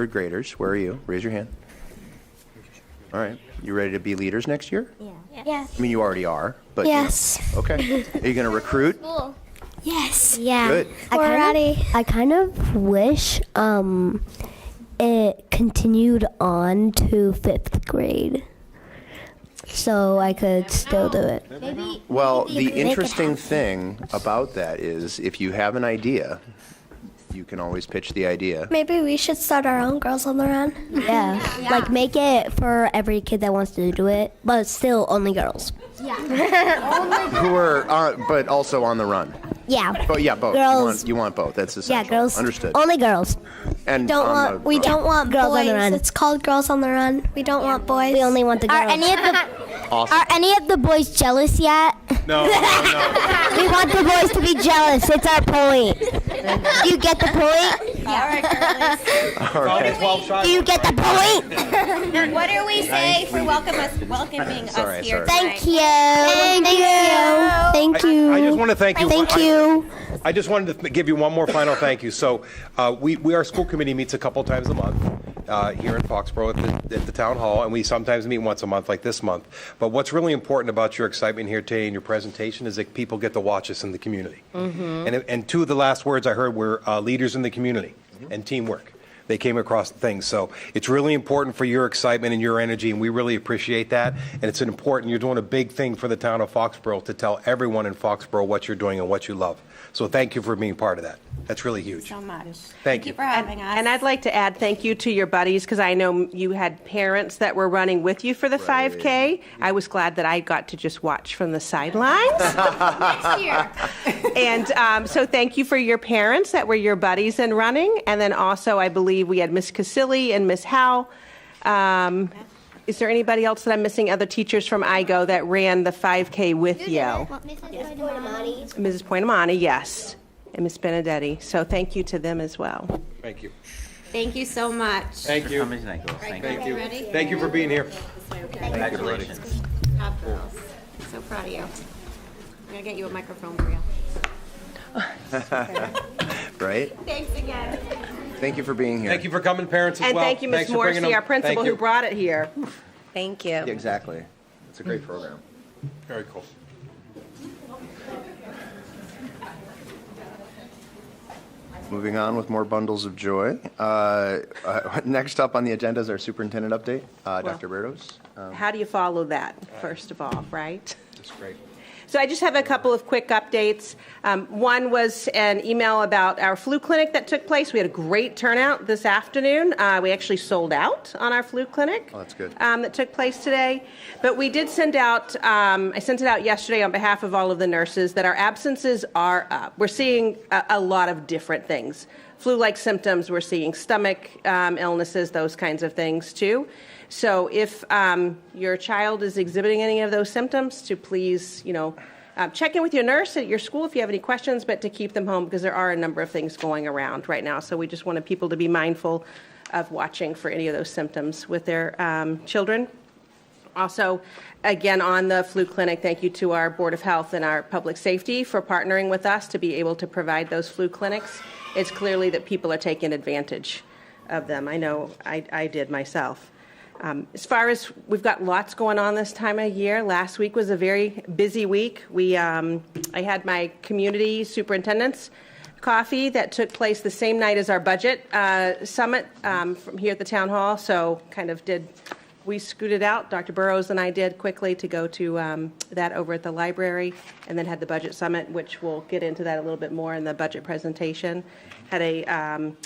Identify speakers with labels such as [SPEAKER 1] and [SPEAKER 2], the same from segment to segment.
[SPEAKER 1] Third graders, where are you? Raise your hand. All right, you ready to be leaders next year?
[SPEAKER 2] Yes.
[SPEAKER 1] I mean, you already are, but. you know.
[SPEAKER 2] Yes.
[SPEAKER 1] Okay. Are you going to recruit?
[SPEAKER 2] Yes. Yeah.
[SPEAKER 1] Good.
[SPEAKER 2] I kind of,
[SPEAKER 3] I kind of wish um, it continued on to fifth grade so I could still do it.
[SPEAKER 1] Well, the
[SPEAKER 2] could make it
[SPEAKER 1] interesting thing about that is if you have an idea, you can always pitch the idea.
[SPEAKER 4] Maybe we should start our own Girls on the Run.
[SPEAKER 3] Yeah. Like make it for every kid that wants to do it, but still only girls.
[SPEAKER 1] Who are, uh, but also on the run.
[SPEAKER 3] Yeah.
[SPEAKER 1] But yeah, both. You
[SPEAKER 3] Girls.
[SPEAKER 1] want- You want both. That's
[SPEAKER 3] Yeah,
[SPEAKER 1] essential.
[SPEAKER 3] girls. Um,
[SPEAKER 1] Understood.
[SPEAKER 3] Only girls.
[SPEAKER 1] And
[SPEAKER 4] Don't
[SPEAKER 1] on
[SPEAKER 4] want
[SPEAKER 1] the
[SPEAKER 4] we
[SPEAKER 1] run.
[SPEAKER 4] don't want
[SPEAKER 3] Girls on
[SPEAKER 4] boys.
[SPEAKER 3] the Run.
[SPEAKER 4] It's called Girls on the Run. We don't want boys.
[SPEAKER 3] We only want the girls.
[SPEAKER 5] Are any of the
[SPEAKER 1] Awesome.
[SPEAKER 5] are any of the boys jealous yet?
[SPEAKER 6] No, no, no.
[SPEAKER 5] We want the boys to be jealous. It's our point. Do you get the point?
[SPEAKER 1] All right.
[SPEAKER 6] Only 12 shots.
[SPEAKER 5] Do you get the point?
[SPEAKER 7] What do we say for welcome us, welcoming
[SPEAKER 1] Sorry,
[SPEAKER 7] us
[SPEAKER 1] sorry.
[SPEAKER 7] here?
[SPEAKER 5] Thank you. Thank, you.
[SPEAKER 3] Thank you.
[SPEAKER 6] I just want to thank you.
[SPEAKER 3] Thank
[SPEAKER 6] I-
[SPEAKER 3] you.
[SPEAKER 6] I just wanted to th- give you one more final thank you. So, uh, we, we, our school committee meets a couple times a month uh, here in Foxborough at the, at the town hall, and we sometimes meet once a month, like this month. But what's really important about your excitement here today and your presentation is that people get to watch us in the community. And, and two of the last words I heard were uh, leaders in the community and teamwork. They came across things. So it's really important for your excitement and your energy, and we really appreciate that. And it's an important, you're doing a big thing for the town of Foxborough to tell everyone in Foxborough what you're doing and what you love. So thank you for being part of that. That's really huge.
[SPEAKER 7] so much.
[SPEAKER 6] Thank you.
[SPEAKER 7] for having us.
[SPEAKER 8] And I'd like to add thank you to your buddies because I know you had parents that were running with you for the 5K. I was glad that I got to just watch from the sidelines. and um, so thank you for your parents that were your buddies in running. And then also, I believe we had Miss Casilli and Miss Howe. Um, is there anybody else that I'm missing? Other teachers from IGO that ran the 5K with you? Mrs. Poinamani, yes, and Miss Benedetti. So thank you to them as well.
[SPEAKER 6] Thank you.
[SPEAKER 7] Thank you so much.
[SPEAKER 6] Thank you. Thank you. Thank you for being here.
[SPEAKER 7] Congratulations. Top girls. So proud of you. I'm gonna get you a microphone for you.
[SPEAKER 1] Right?
[SPEAKER 7] Thanks again.
[SPEAKER 1] Thank you for being here.
[SPEAKER 6] Thank you for coming, parents, as
[SPEAKER 8] And
[SPEAKER 6] well.
[SPEAKER 8] thank you, Ms.
[SPEAKER 6] Thanks for bringing
[SPEAKER 8] Morrissey,
[SPEAKER 6] them.
[SPEAKER 8] our principal
[SPEAKER 6] Thank you.
[SPEAKER 8] who brought it here.
[SPEAKER 7] Thank you.
[SPEAKER 1] Yeah, Exactly. It's a great program.
[SPEAKER 6] Very cool.
[SPEAKER 1] Moving on with more bundles of joy. Uh, uh, Next up on the agenda is our superintendent update. Uh, Dr. Bertos.
[SPEAKER 8] How do you follow that, first of all, right?
[SPEAKER 6] That's great.
[SPEAKER 8] So I just have a couple of quick updates. Um, One was an email about our flu clinic that took place. We had a great turnout this afternoon. Uh, We actually sold out on our flu clinic.
[SPEAKER 1] Oh, that's good.
[SPEAKER 8] um, That took place today. But we did send out, um, I sent it out yesterday on behalf of all of the nurses, that our absences are up. We're seeing a a lot of different things. Flu-like symptoms, we're seeing stomach um, illnesses, those kinds of things too. So if um, your child is exhibiting any of those symptoms, to please, you know, uh, check in with your nurse at your school if you have any questions, but to keep them home because there are a number of things going around right now. So we just wanted people to be mindful of watching for any of those symptoms with their um, children. Also, again, on the flu clinic, thank you to our Board of Health and our Public Safety for partnering with us to be able to provide those flu clinics. It's clearly that people are taking advantage of them. I know I, I did myself. Um, As far as, we've got lots going on this time of year. Last week was a very busy week. We, um, I had my community superintendents coffee that took place the same night as our budget uh, summit um, from here at the town hall, so kind of did, we scooted out, Dr. Burrows and I did quickly to go to um, that over at the library, and then had the budget summit, which we'll get into that a little bit more in the budget presentation. Had a um,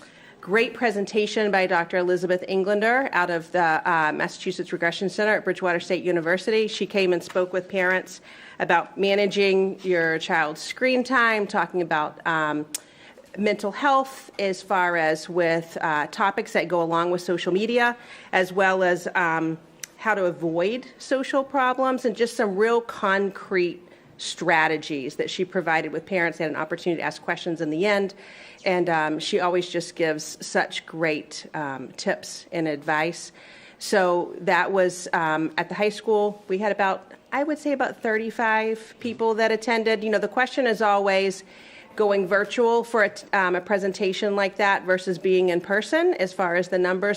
[SPEAKER 8] great presentation by Dr. Elizabeth Englander out of the uh, Massachusetts Regression Center at Bridgewater State University. She came and spoke with parents about managing your child's screen time, talking about um, mental health as far as with uh, topics that go along with social media, as well as um, how to avoid social problems, and just some real concrete strategies that she provided with parents. They had an opportunity to ask questions in the end, and um, she always just gives such great um, tips and advice. So that was um, at the high school. We had about, I would say, about 35 people that attended. You know, the question is always, going virtual for a, t- um, a presentation like that versus being in person as far as the numbers.